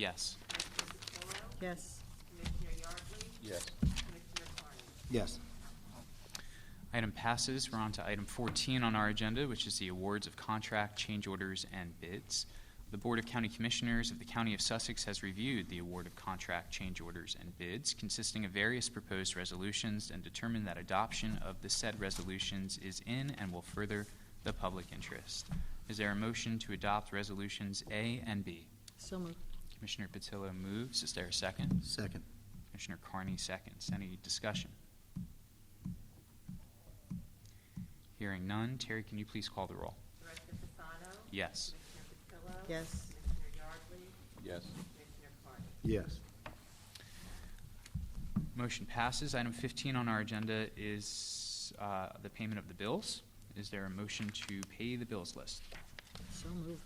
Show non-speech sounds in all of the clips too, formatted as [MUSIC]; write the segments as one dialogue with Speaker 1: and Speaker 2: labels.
Speaker 1: Yes.
Speaker 2: Mrs. Milrow,
Speaker 3: Yes.
Speaker 2: Commissioner Yardley,
Speaker 4: Yes.
Speaker 2: Commissioner Carney.
Speaker 4: Yes.
Speaker 1: Item passes. We're on to item 14 on our agenda, which is the awards of contract change orders and bids. The Board of County Commissioners of the County of Sussex has reviewed the award of contract change orders and bids consisting of various proposed resolutions and determined that adoption of the said resolutions is in and will further the public interest. Is there a motion to adopt resolutions A and B?
Speaker 3: So moved.
Speaker 1: Commissioner Patillo moves. Is there a second?
Speaker 4: Second.
Speaker 1: Commissioner Carney seconds. Any discussion? Hearing none. Terry, can you please call the roll?
Speaker 2: Director Fasano.
Speaker 1: Yes.
Speaker 2: Commissioner Patillo.
Speaker 3: Yes.
Speaker 2: Commissioner Yardley,
Speaker 4: Yes.
Speaker 2: Commissioner Carney.
Speaker 4: Yes.
Speaker 1: Motion passes. Item 15 on our agenda is uh, the payment of the bills. Is there a motion to pay the bills list?
Speaker 3: So moved.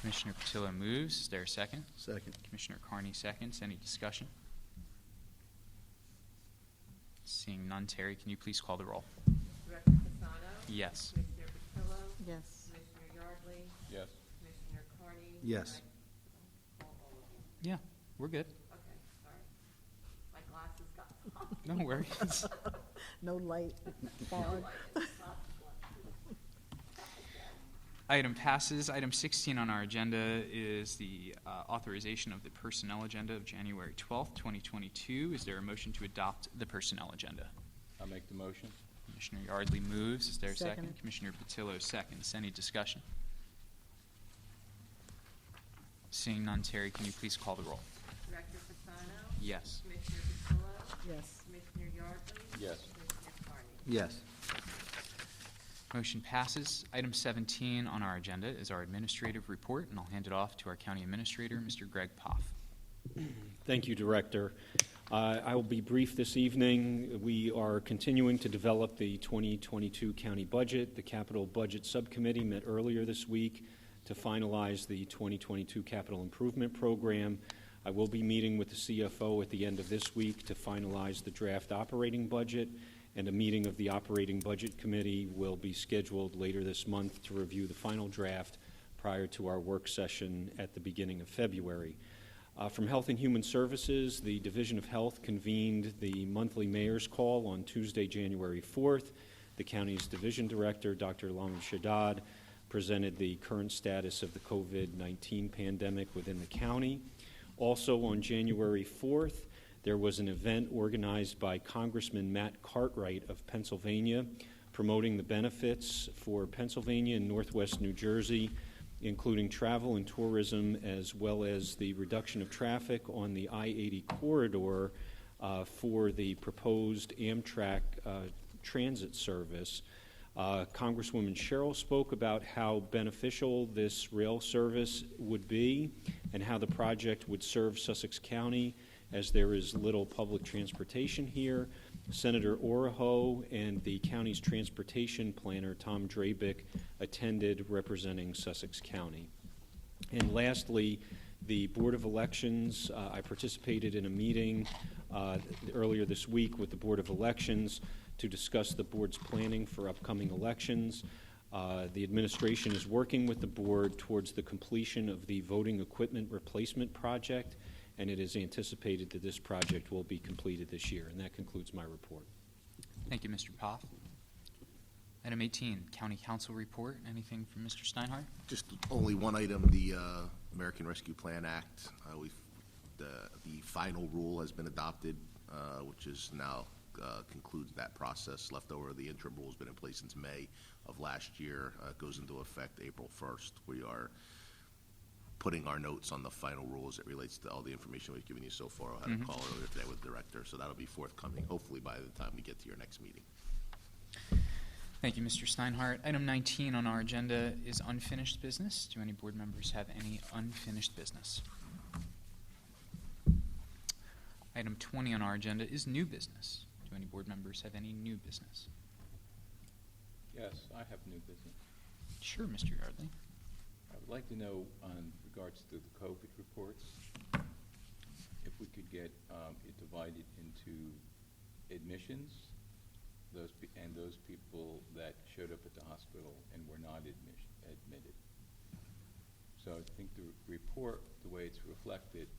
Speaker 1: Commissioner Patillo moves. Is there a second?
Speaker 4: Second.
Speaker 1: Commissioner Carney seconds. Any discussion? Seeing none, Terry, can you please call the roll?
Speaker 2: Director Fasano.
Speaker 1: Yes.
Speaker 2: Commissioner Patillo.
Speaker 3: Yes. [LAUGHS]
Speaker 2: Commissioner Yardley,
Speaker 4: Yes.
Speaker 2: Commissioner Carney.
Speaker 4: Yes.
Speaker 2: Can I call all of you?
Speaker 1: Yeah, we're good.
Speaker 2: Okay, sorry. My glasses got [LAUGHS] fogged.
Speaker 1: No worries.
Speaker 3: No light.
Speaker 2: No,
Speaker 3: Fog.
Speaker 2: I didn't stop the glasses.
Speaker 1: Item passes. Item 16 on our agenda is the uh, authorization of the personnel agenda of January 12th, 2022. Is there a motion to adopt the personnel agenda?
Speaker 4: I make the motion?
Speaker 1: Commissioner Yardley moves. Is there a second?
Speaker 3: Second.
Speaker 1: Commissioner Patillo seconds. Any discussion? Seeing none, Terry, can you please call the roll?
Speaker 2: Director Fasano.
Speaker 1: Yes.
Speaker 2: Commissioner Patillo.
Speaker 3: Yes.
Speaker 2: Commissioner Yardley.
Speaker 4: Yes.
Speaker 2: Commissioner Carney.
Speaker 4: Yes.
Speaker 1: Motion passes. Item 17 on our agenda is our administrative report, and I'll hand it off to our county administrator, Mr. Greg Poff.
Speaker 5: Thank you, Director. Uh, I will be brief this evening. We are continuing to develop the 2022 county budget. The Capital Budget Subcommittee met earlier this week to finalize the 2022 capital improvement program. I will be meeting with the CFO at the end of this week to finalize the draft operating budget, and a meeting of the Operating Budget Committee will be scheduled later this month to review the final draft prior to our work session at the beginning of February. Uh, From Health and Human Services, the Division of Health convened the monthly mayor's call on Tuesday, January 4th. The county's division director, Dr. Lam Shadad, presented the current status of the COVID-19 pandemic within the county. Also, on January 4th, there was an event organized by Congressman Matt Cartwright of Pennsylvania promoting the benefits for Pennsylvania and Northwest New Jersey including travel and tourism, as well as the reduction of traffic on the I-80 corridor uh, for the proposed Amtrak uh, transit service. Uh, Congresswoman Cheryl spoke about how beneficial this rail service would be and how the project would serve Sussex County as there is little public transportation here. Senator Oraho and the county's transportation planner, Tom Drabick, attended representing Sussex County. And lastly, the Board of Elections, uh, I participated in a meeting uh, earlier this week with the Board of Elections to discuss the board's planning for upcoming elections. Uh, The administration is working with the board towards the completion of the voting equipment replacement project, and it is anticipated that this project will be completed this year. And that concludes my report.
Speaker 1: Thank you, Mr. Poff. Item 18, County Council Report. Anything from Mr. Steinhardt?
Speaker 6: Just only one item, the uh, American Rescue Plan Act. Uh, We've, the, the final rule has been adopted, uh, which is now uh, concludes that process. Leftover, the interim rule's been in place since May of last year, Uh, It goes into effect April 1st. We are putting our notes on the final rule as it relates to all the information we've given you so far. I had a call earlier today with the director, so that'll be forthcoming, hopefully by the time we get to your next meeting.
Speaker 1: Thank you, Mr. Steinhardt. Item 19 on our agenda is unfinished business. Do any board members have any unfinished business? Item 20 on our agenda is new business. Do any board members have any new business?
Speaker 7: Yes, I have new business.
Speaker 1: Sure, Mr. Yardley.
Speaker 7: I would like to know, on regards to the COVID reports, if we could get um, it divided into admissions, those, pe- and those people that showed up at the hospital and were not admission, admitted. So I think the report, the way it's reflected,